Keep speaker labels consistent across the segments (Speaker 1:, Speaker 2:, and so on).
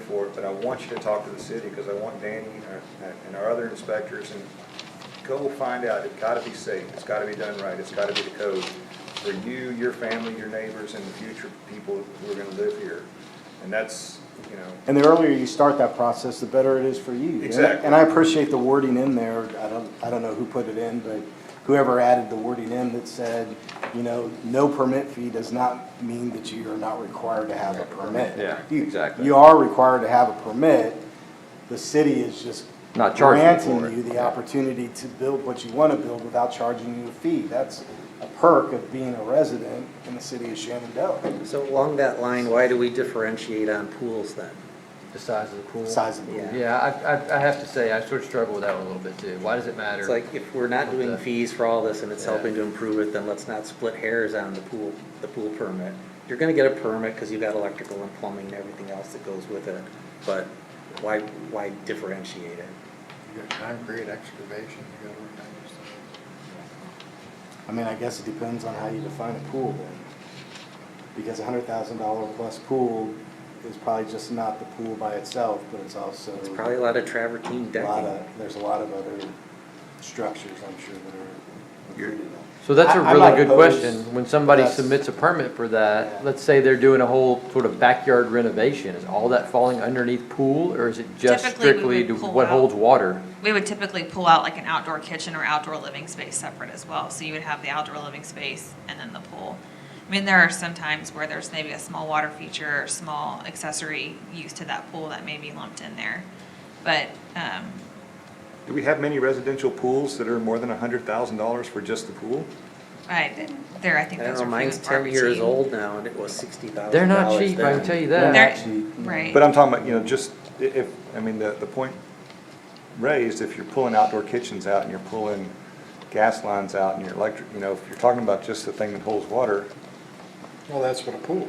Speaker 1: for it, but I want you to talk to the city, because I want Danny and our- and our other inspectors, and go find out, it's gotta be safe, it's gotta be done right, it's gotta be the code for you, your family, your neighbors, and the future people who are gonna live here. And that's, you know,
Speaker 2: And the earlier you start that process, the better it is for you. And I-
Speaker 1: Exactly.
Speaker 2: And I appreciate the wording in there. I don't, I don't know who put it in, but whoever added the wording in that said, you know, no permit fee does not mean that you are not required to have a permit.
Speaker 3: Yeah,
Speaker 2: You-
Speaker 3: exactly.
Speaker 2: You are required to have a permit. The city is just
Speaker 3: Not charging you for it.
Speaker 2: granting you the opportunity to build what you want to build without charging you a fee. That's a perk of being a resident in the city of Shenandoah.
Speaker 4: So along that line, why do we differentiate on pools then?
Speaker 5: The size of the pool?
Speaker 2: Size of the pool.
Speaker 5: Yeah, I, I, I have to say, I sort of struggle with that one a little bit too. Why does it matter?
Speaker 4: It's like, if we're not doing
Speaker 5: Okay.
Speaker 4: fees for all this and it's
Speaker 5: Yeah.
Speaker 4: helping to improve it, then let's not split hairs on the pool, the pool permit. You're gonna get a permit because you've got electrical and plumbing and everything else that goes with it, but why, why differentiate it?
Speaker 6: You got concrete excavation, you got all kinds of stuff.
Speaker 2: I mean, I guess it depends on how you define a pool then. Because a hundred thousand dollar plus pool is probably just not the pool by itself, but it's also.
Speaker 4: It's probably a lot of travertine
Speaker 2: a lot
Speaker 4: decking.
Speaker 2: of- There's a lot of other structures, I'm sure, that are included.
Speaker 5: So that's a
Speaker 2: I- I'm
Speaker 5: really
Speaker 2: not
Speaker 5: good
Speaker 2: opposed.
Speaker 5: question. When somebody
Speaker 2: That's-
Speaker 5: submits a permit for that,
Speaker 2: Yeah.
Speaker 5: let's say they're doing a whole sort of backyard renovation, is all that falling underneath pool? Or is it just
Speaker 7: Typically, we
Speaker 5: strictly
Speaker 7: would
Speaker 5: to
Speaker 7: pull
Speaker 5: what
Speaker 7: out.
Speaker 5: holds water?
Speaker 7: We would typically pull out like an outdoor kitchen or outdoor living space separate as well. So you would have the outdoor living space and then the pool. I mean, there are some times where there's maybe a small water feature or small accessory use to that pool that may be lumped in there. But, um,
Speaker 1: do we have many residential pools that are more than a hundred thousand dollars for just the pool?
Speaker 7: I, there, I
Speaker 4: I
Speaker 7: think
Speaker 4: don't
Speaker 7: those are
Speaker 4: know,
Speaker 7: few
Speaker 4: mine's
Speaker 7: and
Speaker 4: ten
Speaker 7: far
Speaker 4: years
Speaker 7: between.
Speaker 4: old now and it was sixty thousand dollars.
Speaker 5: They're not cheap, I can tell you that.
Speaker 7: They're-
Speaker 2: Actually,
Speaker 7: Right.
Speaker 1: But I'm talking about, you know, just i- if, I mean, the, the point raised, if you're pulling outdoor kitchens out and you're pulling gas lines out and your electric, you know, if you're talking about just the thing that holds water,
Speaker 6: Well, that's what a pool is.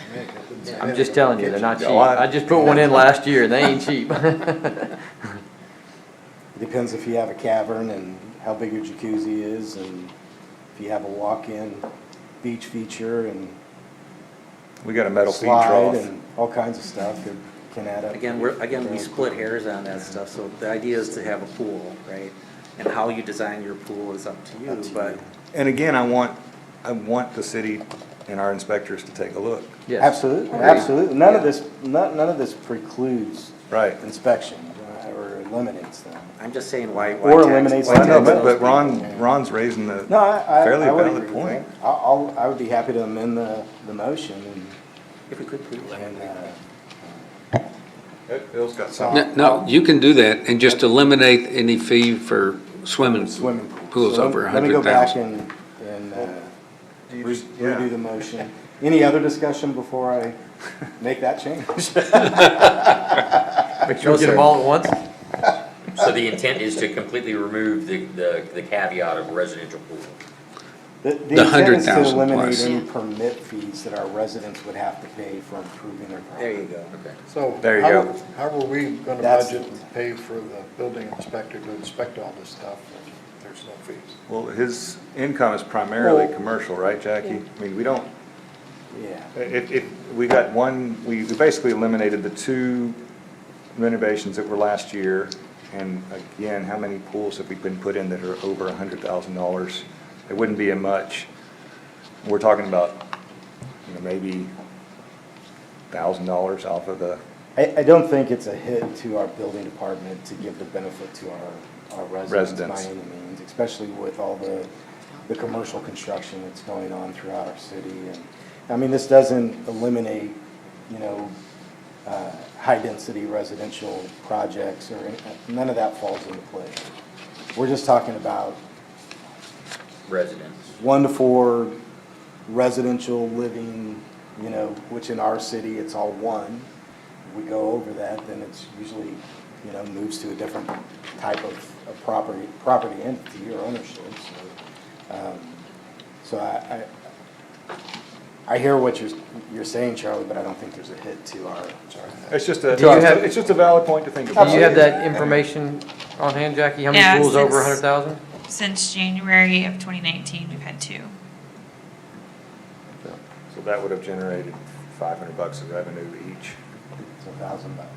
Speaker 6: I mean, it doesn't say
Speaker 5: I'm
Speaker 6: that
Speaker 5: just
Speaker 6: in
Speaker 5: telling
Speaker 6: the
Speaker 5: you, they're
Speaker 6: kitchen.
Speaker 5: not cheap.
Speaker 1: No, I-
Speaker 5: I just put one in last year and they ain't cheap.
Speaker 2: It Depends if you have a cavern and how big your jacuzzi is and if you have a walk-in beach feature and
Speaker 1: we got a metal feed
Speaker 2: slide
Speaker 1: trough.
Speaker 2: and all kinds of stuff that can add up.
Speaker 4: Again, we're, again, we split hairs on that stuff, so the idea is to have a pool, right? And how you design your pool is up to you,
Speaker 2: Up to you.
Speaker 4: but
Speaker 1: And again, I want, I want the city and our inspectors to take a look.
Speaker 5: Yes.
Speaker 2: Absolutely, absolutely. None of this, none, none of this precludes.
Speaker 1: Right.
Speaker 2: Inspection uh, or eliminates them.
Speaker 4: I'm just saying why. why
Speaker 2: Or
Speaker 4: tax-
Speaker 2: eliminates
Speaker 1: Well, I
Speaker 4: why
Speaker 1: know,
Speaker 2: the-
Speaker 1: but,
Speaker 4: tax
Speaker 1: but
Speaker 4: those
Speaker 1: Ron, Ron's raising the
Speaker 2: No, I, I,
Speaker 1: fairly
Speaker 2: I would
Speaker 1: valid
Speaker 2: agree with
Speaker 1: point.
Speaker 2: that. I'll, I'll- I would be happy to amend the, the motion
Speaker 4: people? If we could please.
Speaker 2: and, and, uh,
Speaker 1: Bill's got
Speaker 2: something.
Speaker 8: No, No, you can do that and just eliminate any fee for swimming.
Speaker 2: swimming pool.
Speaker 8: Pools
Speaker 2: So
Speaker 8: over a
Speaker 2: Let me
Speaker 8: hundred
Speaker 2: go back
Speaker 8: thousand.
Speaker 2: and, and, uh,
Speaker 1: Do you
Speaker 2: re-
Speaker 1: just- yeah.
Speaker 2: redo the motion. Any other discussion before I make that change?
Speaker 5: Make sure we get them all at once.
Speaker 9: So the intent is to completely remove the, the the caveat of residential pool.
Speaker 2: The
Speaker 8: The
Speaker 2: the intent is to
Speaker 8: 100,000
Speaker 2: eliminate
Speaker 8: plus.
Speaker 2: any permit fees that our residents would have to pay for improving their property.
Speaker 4: There you go.
Speaker 6: So.
Speaker 1: There you
Speaker 6: how-
Speaker 1: go.
Speaker 6: How are we gonna
Speaker 2: That's-
Speaker 6: budget and pay for the building inspector to inspect all this stuff if there's no fees?
Speaker 1: Well, his income is primarily
Speaker 2: Well-
Speaker 1: commercial, right, Jackie? I mean, we don't,
Speaker 2: Yeah.
Speaker 1: If, if, we got one, we we basically eliminated the two renovations that were last year. And again, how many pools have we been put in that are over a hundred thousand dollars? It wouldn't be a much. We're talking about, you know, maybe thousand dollars off of the,
Speaker 2: I, I don't think it's a hit to our building department to give the benefit to our, our residents
Speaker 1: Residents.
Speaker 2: by any means, especially with all the, the commercial construction that's going on throughout our city. And I mean, this doesn't eliminate, you know, uh, high-density residential projects or, any- none of that falls into play. We're just talking about
Speaker 9: Residents.
Speaker 2: one to four residential living, you know, which in our city, it's all one. We go over that, then it's usually, you know, moves to a different type of, of property, property entity or ownership, so. um, So I, I, I hear what you're, you're saying, Charlie, but I don't think there's a hit to our,
Speaker 1: it's just a,
Speaker 5: Do you have-
Speaker 1: it's just a valid point to think
Speaker 5: Do
Speaker 1: about.
Speaker 5: you have that information on hand, Jackie? How
Speaker 7: Yeah,
Speaker 5: many pools over a
Speaker 7: since-
Speaker 5: hundred thousand?
Speaker 7: Since January of twenty nineteen, we've had two.
Speaker 1: So that would have generated five hundred bucks of revenue each.
Speaker 2: it's a thousand bucks.